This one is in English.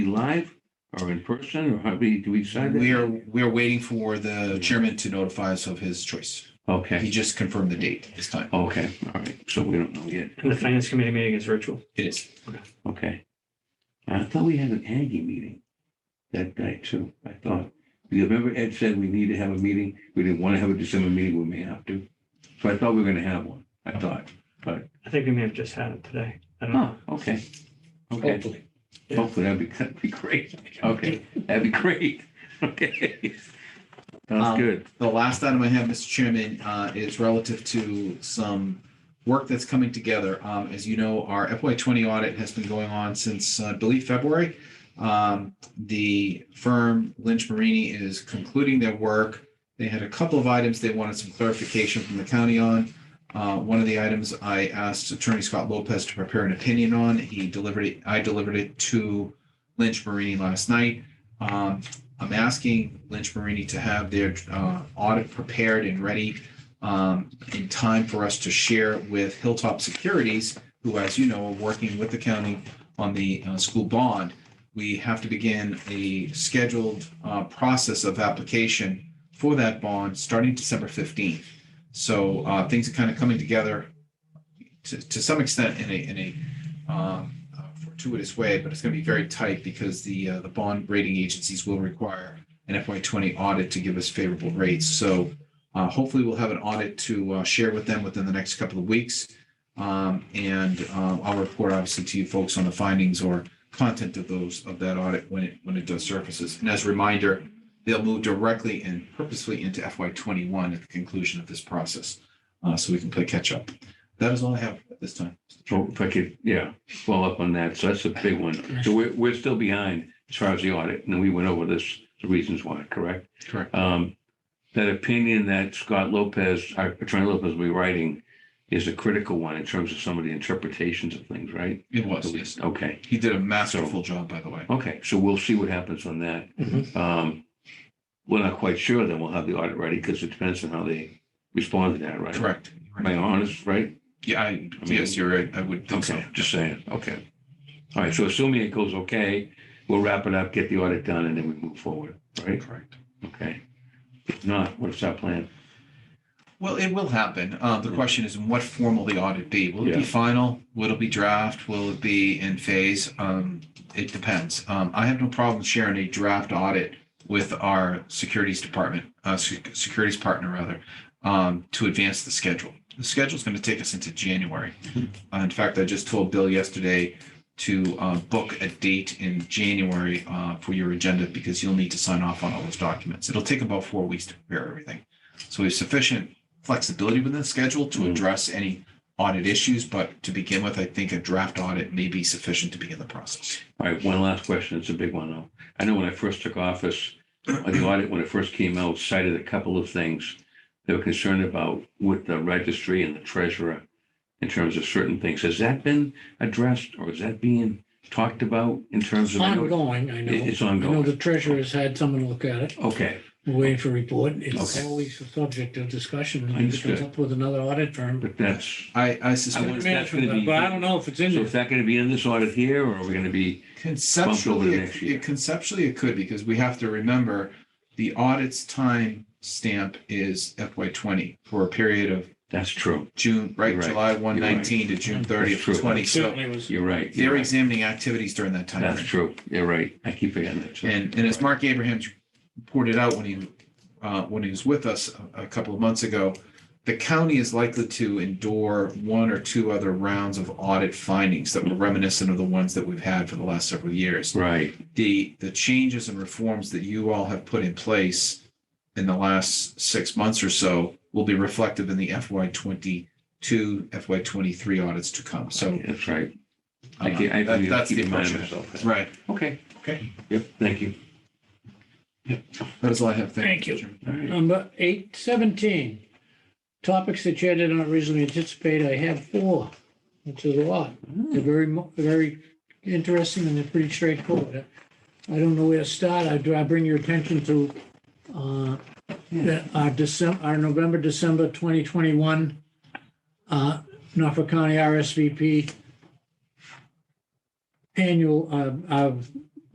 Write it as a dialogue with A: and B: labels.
A: live or in person, or how we, do we decide that?
B: We're, we're waiting for the chairman to notify us of his choice. He
A: Okay,
B: just confirmed the date this time.
A: okay, all right, so we don't know yet,
C: And the finance committee meeting is virtual.
B: It is.
A: okay. I thought we had an Aggie meeting that night too, I thought, because remember Ed said we need to have a meeting, we didn't want to have a December meeting, we may have to. So I thought we were gonna have one, I thought,
C: I think we may have just had it today. I don't
A: oh,
C: know.
A: okay, okay.
C: Hopefully. Yeah.
A: Hopefully, that'd be, that'd be great. Okay, that'd be great. Okay. Sounds
B: Um,
A: good.
B: The last item I have, Mr. Chairman, uh, is relative to some work that's coming together. Um, As you know, our FY twenty audit has been going on since, uh, I believe, February. Um, The firm Lynch Marini is concluding their work. They had a couple of items they wanted some clarification from the county on. Uh, One of the items I asked Attorney Scott Lopez to prepare an opinion on. He delivered it, I delivered it to Lynch Marini last night. Um, I'm asking Lynch Marini to have their uh, audit prepared and ready um, in time for us to share with Hilltop Securities, who, as you know, are working with the county on the uh, school bond. We have to begin a scheduled uh, process of application for that bond starting December 15th. So uh, things are kind of coming together to, to some extent in a, in a um, uh, fortuitous way, but it's going to be very tight because the, uh, the bond rating agencies will require an FY twenty audit to give us favorable rates. So uh, hopefully we'll have an audit to uh, share with them within the next couple of weeks. Um, And um, I'll report obviously to you folks on the findings or content of those, of that audit when it, when it does surfaces. And as a reminder, they'll move directly and purposely into FY twenty-one at the conclusion of this process. uh, So we can play catch-up. That is all I have at this time.
A: So if I could, yeah, follow up on that. So that's a big one. So we're, we're still behind as far as the audit, and we went over this, the reasons why, correct?
B: Correct.
A: Um, that opinion that Scott Lopez, our Attorney Lopez will be writing is a critical one in terms of some of the interpretations of things, right?
B: It was, yes.
A: Okay,
B: He did a masterful job, by the way.
A: okay. So we'll see what happens on that.
B: Mm-hmm.
C: Mhm.
A: Um, we're not quite sure, then we'll have the audit ready because it depends on how they respond to that, right?
B: Correct.
A: Am I honest, right?
B: Yeah, I, yes, you're right. I would think so.
A: Okay, just saying, okay. All right, so assuming it goes okay, we'll wrap it up, get the audit done, and then we move forward, right?
B: Correct.
A: Okay. If not, what's our plan?
B: Well, it will happen. Uh, the question is, in what form will the audit be? Will it be
A: Yeah.
B: final? Will it be draft? Will it be in phase? Um, it depends. Um, I have no problem sharing a draft audit with our securities department, uh, sec- securities partner rather, um, to advance the schedule. The schedule's going to take us into January. Uh, in fact, I just told Bill yesterday to, uh, book a date in January, uh, for your agenda because you'll need to sign off on all those documents. It'll take about four weeks to prepare everything. So we have sufficient flexibility within the schedule to
A: Mm.
B: address any audit issues, but to begin with, I think a draft audit may be sufficient to begin the process.
A: All right, one last question, it's a big one though. I know when I first took office, uh, the audit, when it first came out, cited a couple of things they were concerned about with the registry and the treasurer in terms of certain things. Has that been addressed or is that being talked about in terms of? I know it-
D: Ongoing, I know.
A: It's
D: I know
A: ongoing.
D: the treasurer's had someone look at it,
A: Okay,
D: We're waiting for a report. It's
A: Okay.
D: always a subject of discussion. If it
A: Understood.
D: comes up with another audit firm.
A: but that's.
B: I, I
A: I wonder
B: suspect
A: if that's gonna be-
D: But I don't know if it's in
A: So
D: there.
A: is that going to be in this audit here, or are we going to be, Bumped over
B: conceptually,
A: to next year.
B: it- conceptually it could, because we have to remember the audit's time stamp is FY twenty for a period of
A: that's true.
B: June, right,
A: You're right.
B: July one nineteen to June thirtieth
A: That's true.
B: twenty.
D: It
B: So
D: Certainly was.
A: You're right. you're
B: they're
A: right.
B: examining activities during that time.
A: That's
B: frame.
A: true. You're right. I keep forgetting that. so-
B: And, and as Mark Abrahams pointed out when he, uh, when he was with us a, a couple of months ago, the county is likely to endure one or two other rounds of audit findings that were reminiscent of the ones that we've had for the last several years.
A: Right,
B: The, the changes and reforms that you all have put in place in the last six months or so will be reflective in the FY twenty-two, FY twenty-three audits to come. So.
A: that's right.
B: uh,
A: I keep, I
B: that-
A: keep
B: that's the
A: keep reminding
B: impression.
A: myself. that.
B: Right.
A: Okay,
B: Okay.
A: yep, thank you.
B: That is all I have.
D: Thank you.
B: Mr. Chairman.
A: All right.
D: Number eight seventeen, topics that you did not originally anticipate. I have four, which is a lot. They're very, mo- very interesting and they're pretty straightforward. I don't know where to start. I, do I bring your attention to, uh, that our December, our November, December twenty twenty-one, uh, Norfolk County RSVP annual, uh, uh,